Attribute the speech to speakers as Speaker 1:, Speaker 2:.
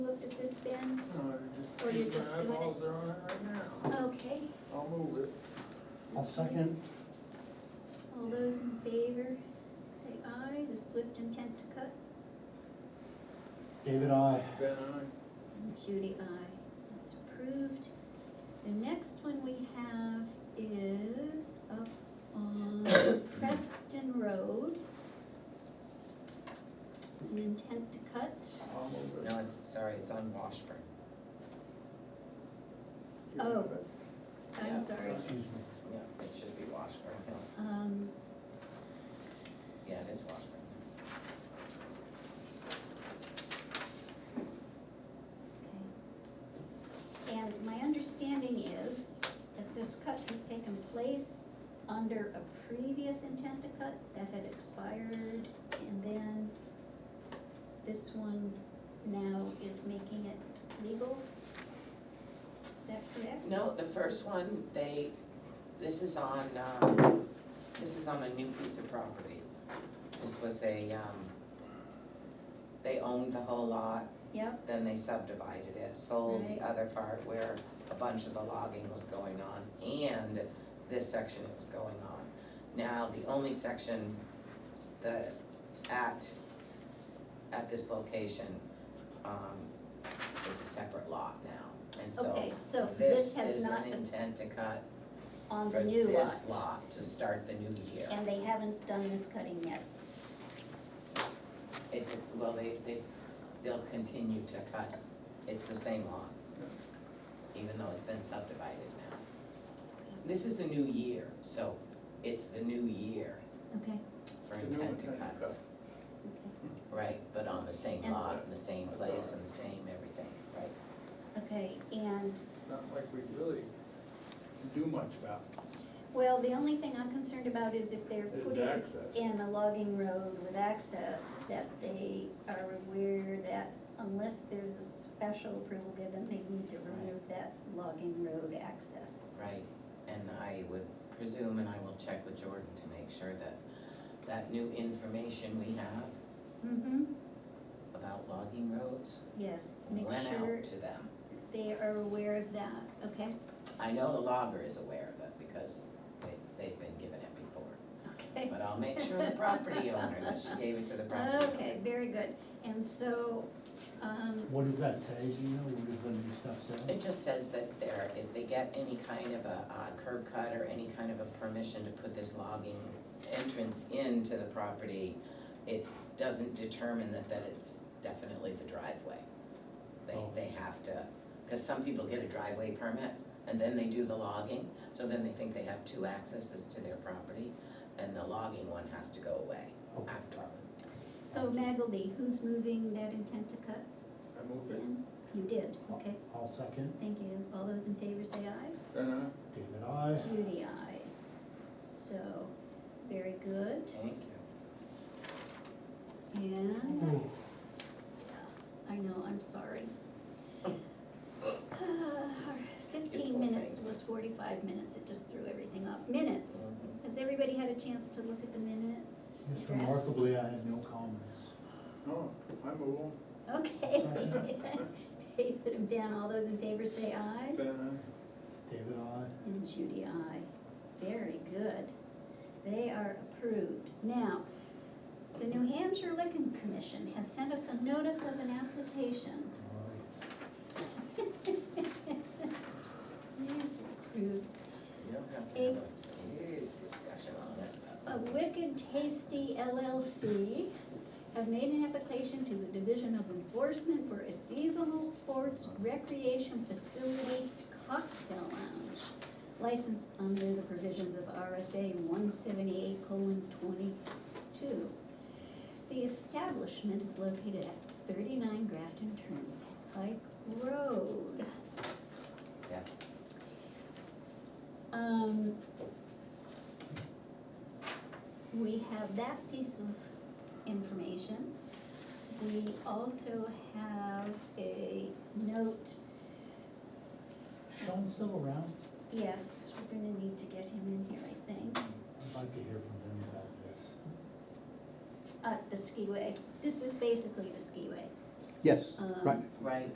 Speaker 1: move it.
Speaker 2: I'll second.
Speaker 3: All those in favor, say aye, the swift intent to cut,
Speaker 2: David, I.
Speaker 1: Ben, aye.
Speaker 3: and Judy, aye, that's approved. The next one we have is up on Preston Road. It's an intent to cut,
Speaker 1: I'll move it.
Speaker 4: No, it's, sorry, it's on Washburn.
Speaker 1: You
Speaker 3: Oh.
Speaker 1: move it.
Speaker 3: I'm
Speaker 4: Yeah.
Speaker 3: sorry,
Speaker 2: Excuse me.
Speaker 4: Yeah, it should be Washburn Hill.
Speaker 3: um,
Speaker 4: Yeah, it is Washburn.
Speaker 3: okay. And my understanding is that this cut has taken place under a previous intent to cut that had expired, and then this one now is making it legal? Is that correct?
Speaker 4: No, the first one, they, this is on, um, this is on a new piece of property. This was a, um, they owned the whole lot,
Speaker 3: Yep,
Speaker 4: then they subdivided it, sold
Speaker 3: Right.
Speaker 4: the other part where a bunch of the logging was going on and this section was going on. Now, the only section that at, at this location, um, is a separate lot now. And so
Speaker 3: okay, so this
Speaker 4: this
Speaker 3: has
Speaker 4: is
Speaker 3: not
Speaker 4: an intent to cut
Speaker 3: on
Speaker 4: for
Speaker 3: the new lot.
Speaker 4: this lot to start the new year.
Speaker 3: And they haven't done this cutting yet,
Speaker 4: It's, well, they, they, they'll continue to cut, it's the same lot, even though it's been subdivided now. This is the new year, so it's the new year
Speaker 3: okay,
Speaker 4: for
Speaker 1: It's a new
Speaker 4: intent to
Speaker 1: intent to
Speaker 4: cuts,
Speaker 3: okay,
Speaker 4: right, but on the same
Speaker 3: And-
Speaker 4: lot, in the same place, and the same everything, right?
Speaker 3: okay, and
Speaker 1: It's not like we really do much about
Speaker 3: Well, the only thing I'm concerned about is if they're
Speaker 1: it, is
Speaker 3: putting
Speaker 1: access.
Speaker 3: in a logging road with access, that they are aware that unless there's a special approval given, they need to remove that logging road access.
Speaker 4: Right, and I would presume, and I will check with Jordan to make sure that that new information we have
Speaker 3: Mm-hmm.
Speaker 4: about logging roads
Speaker 3: Yes, make
Speaker 4: went
Speaker 3: sure
Speaker 4: out to them.
Speaker 3: they are aware of that, okay?
Speaker 4: I know the logger is aware of it because they, they've been given it before,
Speaker 3: Okay,
Speaker 4: but I'll make sure the property owner, that she gave it to the property owner.
Speaker 3: okay, very good. And so, um,
Speaker 2: What does that say, do you know, what does the new stuff say?
Speaker 4: It just says that there, if they get any kind of a uh, curb cut or any kind of a permission to put this logging entrance into the property, it doesn't determine that, that it's definitely the driveway. They,
Speaker 2: Oh.
Speaker 4: they have to, because some people get a driveway permit and then they do the logging, so then they think they have two accesses to their property, and the logging one has to go away
Speaker 2: Oh,
Speaker 4: after.
Speaker 3: so Magleby, who's moving that intent to cut
Speaker 1: I move it.
Speaker 3: in? You did, okay,
Speaker 2: I'll second,
Speaker 3: thank you. All those in favor say aye.
Speaker 1: Ben, aye.
Speaker 2: David, I.
Speaker 3: Judy, I. So, very good,
Speaker 4: Thank you.
Speaker 3: and,
Speaker 2: Ooh,
Speaker 3: I know, I'm sorry. Fifteen
Speaker 4: Beautiful
Speaker 3: minutes
Speaker 4: things.
Speaker 3: was forty-five minutes, it just threw everything off, minutes.
Speaker 4: Mm-hmm.
Speaker 3: Has everybody had a chance to look at the minutes?
Speaker 2: Just remarkably, I have no comments.
Speaker 1: Oh, I move on.
Speaker 3: Okay. David and Ben, all those in favor say aye,
Speaker 1: Ben, aye.
Speaker 2: David, I.
Speaker 3: and Judy, aye. Very good, they are approved. Now, The New Hampshire Licking Commission has sent us a notice of an application.
Speaker 2: Aye.
Speaker 3: Yes, approved.
Speaker 4: You don't have to have a big discussion on it.
Speaker 3: A Wicked Tasty LLC have made an application to the Division of Enforcement for a seasonal sports recreation facility cocktail lounge licensed under the provisions of RSA one seventy-eight twenty-two. The establishment is located at thirty-nine Grafton Turnpike Road.
Speaker 4: Yes.
Speaker 3: Um, we have that piece of information. We also have a note,
Speaker 2: Sean's still around?
Speaker 3: yes, we're gonna need to get him in here, I think,
Speaker 2: I'd like to hear from him about this.
Speaker 3: uh, the skiway. This is basically the skiway.
Speaker 5: Yes,
Speaker 3: Um,
Speaker 5: right.
Speaker 4: Right,